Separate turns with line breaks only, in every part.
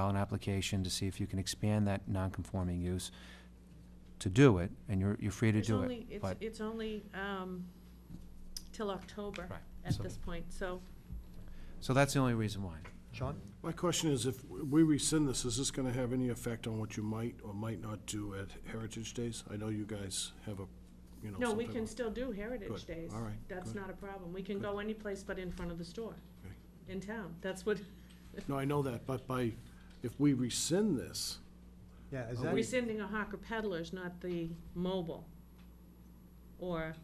file an application to see if you can expand that non-conforming use to do it, and you're, you're free to
It's
do
only-
it.
it's-
but-
It's only um, till October
Right,
at
so-
this point, so
So that's the only reason why.
John?
My question is, if we rescind this, is this gonna have any effect on what you might or might not do at Heritage Days? I know you guys have a, you know,
No, we
something
can
on-
still do Heritage
Good,
Days.
all right,
That's
good.
not a problem. We can
Good.
go any place but in front of the store,
Okay.
in town. That's what,
No, I know that, but by, if we rescind this,
Yeah, is
Oh,
that,
we-
rescinding a hawker peddlers, not the mobile. Or,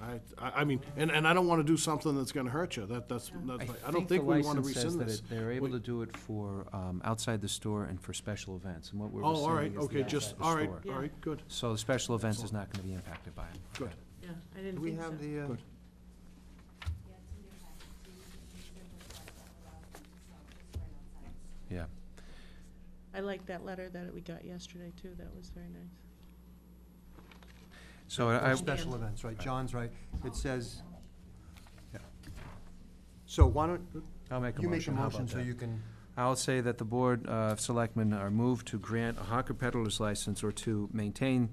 I, I, I mean, and, and I don't wanna do something that's gonna hurt you, that, that's, that's, I don't think
the
we wanna
license says
rescind
that
this.
it- They're able
We-
to do it for, um, outside the store and for special events, and what we're
Oh, all right,
rescinding is the
okay, just,
outside
all
the
right,
store.
Yeah.
all right, good,
So the special events is not gonna be impacted by it.
good.
yeah, I didn't
do we
think
have
so.
the, uh,
Good.
Yeah.
I liked that letter that we got yesterday, too. That was very nice.
So I,
those
I-
special events, right? John's right. It says, yeah. So why don't,
I'll make a
you make a
motion, how
motion
about
so
that?
you can,
I'll say that the Board of Selectmen are moved to grant a hawker peddler's license or to maintain,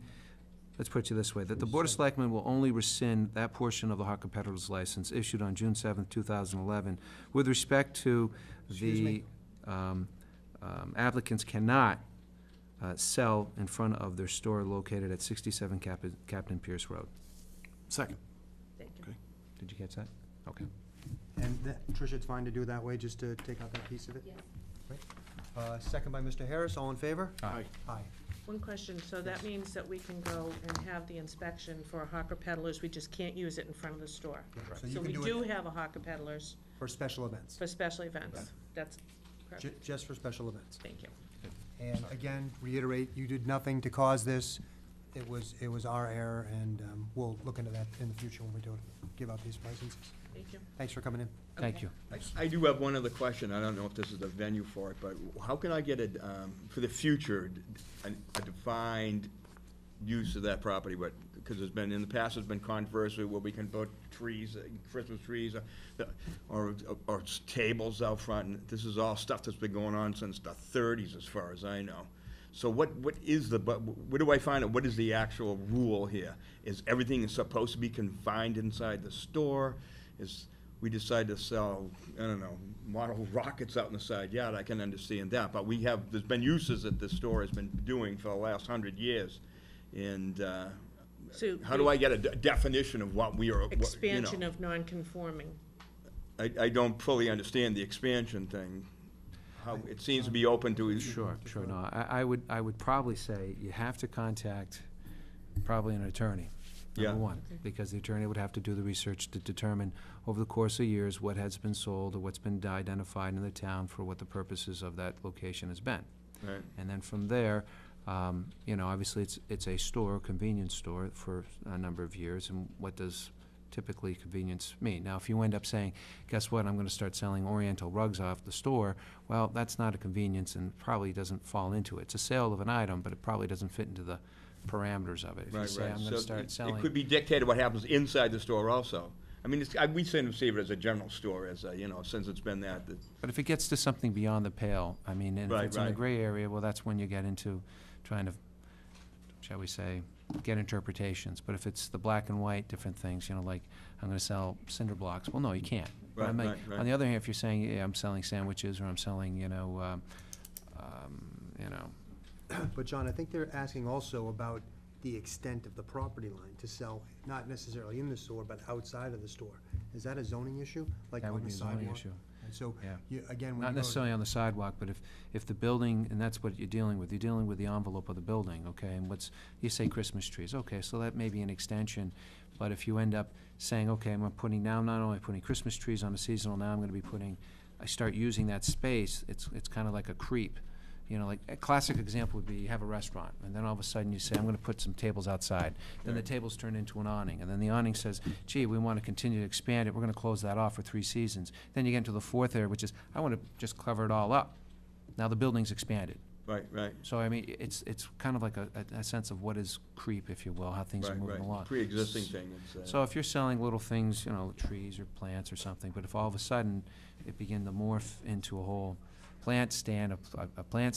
let's put it this way, that the Board of Selectmen will only rescind that portion of the hawker peddler's license issued on June seventh, two thousand eleven. With respect to
Excuse
the
me.
um, um, applicants cannot uh, sell in front of their store located at sixty-seven Cap- Captain Pierce Road.
Second,
Thank you.
Okay.
Did you catch that? Okay.
and that- Tricia, it's fine to do it that way, just to take out that piece of it? Great. Uh, second by Mr. Harris, all in favor?
aye,
Aye.
One question, so that means that we can go and have the inspection for hawker peddlers, we just can't use it in front of the store.
Yeah, So
So
you
we
can do
do
it
have a hawker peddlers
for special events,
for special events. That's
ju-
correct,
just for special events.
thank you.
And again, reiterate, you did nothing to cause this. It was, it was our error, and um, we'll look into that in the future when we do it, give out these licenses.
Thank you.
Thanks for coming in.
Thank
Okay.
you.
I do have one other question, I don't know if this is the venue for it, but how can I get a, um, for the future, d- a a defined use of that property, but, because there's been, in the past, there's been controversy where we can put trees, uh, Christmas trees, uh, the- or, or s- tables out front, and this is all stuff that's been going on since the thirties, as far as I know. So what, what is the, but, where do I find it, what is the actual rule here? Is everything supposed to be confined inside the store? Is, we decide to sell, I don't know, model rockets out in the side yard, I can understand that, but we have, there's been uses that this store has been doing for the last hundred years. And, uh,
So
how do I get a de- definition of what we are, what, you know?
Expansion of non-conforming.
I, I don't fully understand the expansion thing. How, it seems to be open to. e-,
Sure, sure, no, I, I would, I would probably say you have to contact probably an attorney,
Yeah.
number one. Because the attorney would have to do the research to determine over the course of years what has been sold or what's been identified in the town for what the purposes of that location has been.
Right.
And then from there, um, you know, obviously, it's, it's a store, convenience store for a number of years, and what does typically convenience mean? Now, if you end up saying, guess what, I'm gonna start selling Oriental rugs off the store, well, that's not a convenience and probably doesn't fall into it. It's a sale of an item, but it probably doesn't fit into the parameters of it. If you
Right,
say,
right.
I'm
So
gonna
it-
start
It could
selling,
be dictated what happens inside the store also. I mean, it's, I, we sort of see it as a general store, as a, you know, since it's been that, that-
but if it gets to something beyond the pale, I mean, and if
Right,
it's in the
right.
gray area, well, that's when you get into trying to shall we say, get interpretations, but if it's the black and white, different things, you know, like, I'm gonna sell cinder blocks, well, no, you can't. But I
Right,
mean,
right, right.
On the other hand, if you're saying, yeah, I'm selling sandwiches, or I'm selling, you know, um, um, you know,
But John, I think they're asking also about the extent of the property line to sell, not necessarily in the store, but outside of the store. Is that a zoning issue? Like
That would
on the
be a zoning
sidewalk?
issue.
And so,
Yeah.
you, again, when you go.
not necessarily on the sidewalk, but if, if the building, and that's what you're dealing with, you're dealing with the envelope of the building, okay, and what's, you say Christmas trees, okay, so that may be an extension, but if you end up saying, okay, I'm putting, now, not only putting Christmas trees on a seasonal, now I'm gonna be putting, I start using that space, it's, it's kinda like a creep. You know, like, a classic example would be, you have a restaurant, and then all of a sudden you say, I'm gonna put some tables outside, then the
Right.
tables turn into an awning, and then the awning says, gee, we want to continue to expand it, we're going to close that off for three seasons. Then you get into the fourth area, which is, I want to just cover it all up. Now the building's expanded.
right, right.
So I mean, it's, it's kind of like a, a- a sense of what is creep, if you will, how things are
right,
moving
right.
along.
Pre-existing thing, it's,
So
uh,
if you're selling little things, you know, trees or plants or something, but if all of a sudden it begin to morph into a whole plant stand, a, a- a plant